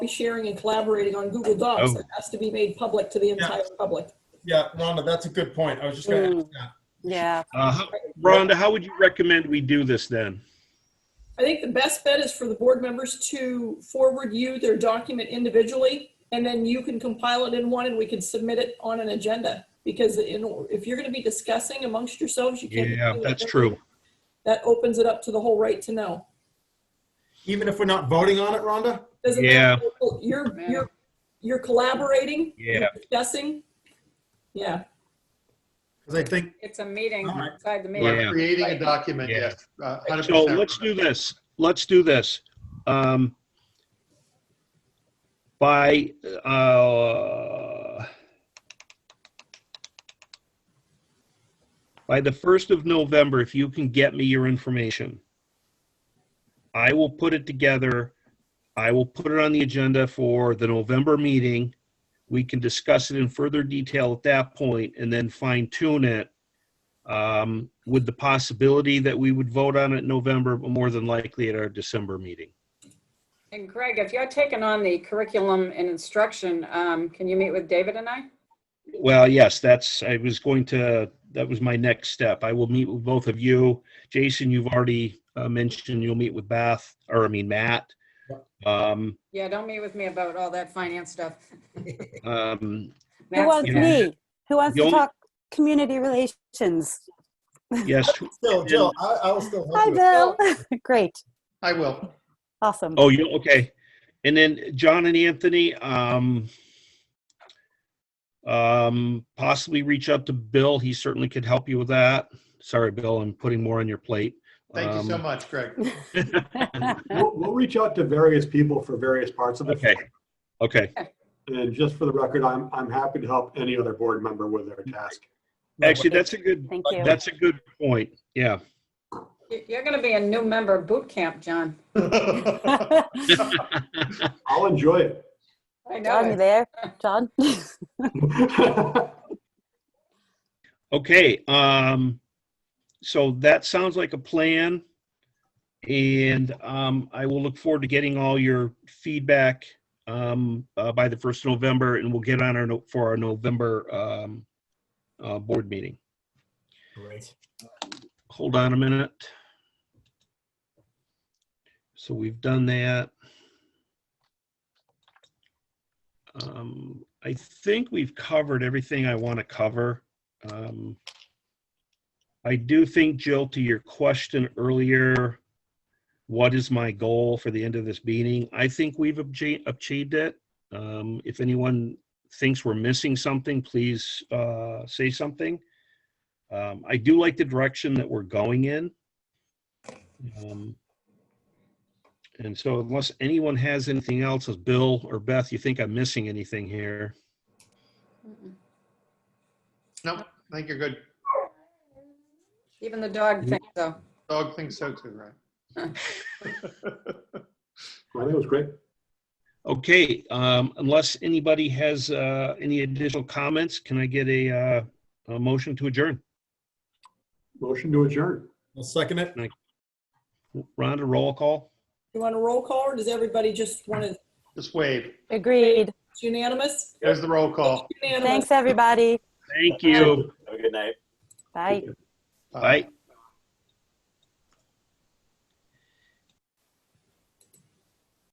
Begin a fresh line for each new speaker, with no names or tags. be sharing and collaborating on Google Docs.
Oh.
It has to be made public to the entire public.
Yeah, Rhonda, that's a good point. I was just gonna ask that.
Yeah,
Uh, how- Rhonda, how would you recommend we do this then?
I think the best bet is for the board members to forward you their document individually, and then you can compile it in one and we can submit it on an agenda. Because in, if you're gonna be discussing amongst yourselves, you can't. be
Yeah,
doing
that's
it.
true.
That opens it up to the whole right to know.
Even if we're not voting on it, Rhonda?
Doesn't
Yeah.
matter. You're, you're, you're collaborating. you're
Yeah.
Discussing. Yeah,
Because I think,
It's a meeting
All right.
inside the meeting.
Yeah.
We're creating a
Right.
document,
Yeah.
yes. uh, 100%.
So let's do this. Let's do this. Um, by, uh, by the 1st of November, if you can get me your information, I will put it together. I will put it on the agenda for the November meeting. We can discuss it in further detail at that point and then fine tune it um, with the possibility that we would vote on it in November, but more than likely at our December meeting.
And Greg, if you're taking on the curriculum and instruction, um, can you meet with David and I?
Well, yes, that's, I was going to, that was my next step. I will meet with both of you. Jason, you've already uh, mentioned you'll meet with Beth, or I mean, Matt. Um,
Yeah, don't meet with me about all that finance stuff.
um,
who wants
you know,
me? Who wants
the
to
only-
talk community relations?
yes,
still, Jill, I, I will still help
Hi,
you. with-
Bill. Great,
I will.
awesome.
oh, you, okay. And then John and Anthony, um, um, possibly reach out to Bill. He certainly could help you with that. Sorry, Bill, I'm putting more on your plate.
Thank you so
Um,
much, Greg.
We'll, we'll reach out to various people for various parts of it.
Okay, okay,
And just for the record, I'm, I'm happy to help any other board member with their task.
actually, that's a good,
Thank you.
that's a good point, yeah.
You- You're gonna be a new member of boot camp, John.
I'll enjoy it.
I
John, you
know it.
there? John?
Okay, um, so that sounds like a plan. And, um, I will look forward to getting all your feedback, um, uh, by the first of November and we'll get on our, no- for our November, um, uh, board meeting.
Great.
Hold on a minute. So we've done that. Um, I think we've covered everything I want to cover. Um, I do think, Jill, to your question earlier, what is my goal for the end of this meeting? I think we've obje- achieved it. Um, If anyone thinks we're missing something, please uh, say something. Um, I do like the direction that we're going in. Um, and so unless anyone has anything else, as Bill or Beth, you think I'm missing anything here?
No, I think you're good.
Even the dog thinks so.
Dog thinks so too, right?
I think it was great.
Okay, um, unless anybody has, uh, any additional comments, can I get a, uh, a motion to adjourn?
Motion to adjourn.
I'll second it.
Rhonda, roll call?
you want a roll call or does everybody just want to,
Just wave.
Agreed.
it's unanimous?
There's the roll call.
Unanimous.
Thanks, everybody.
Thank you.
Have a good night.
Bye.
Bye.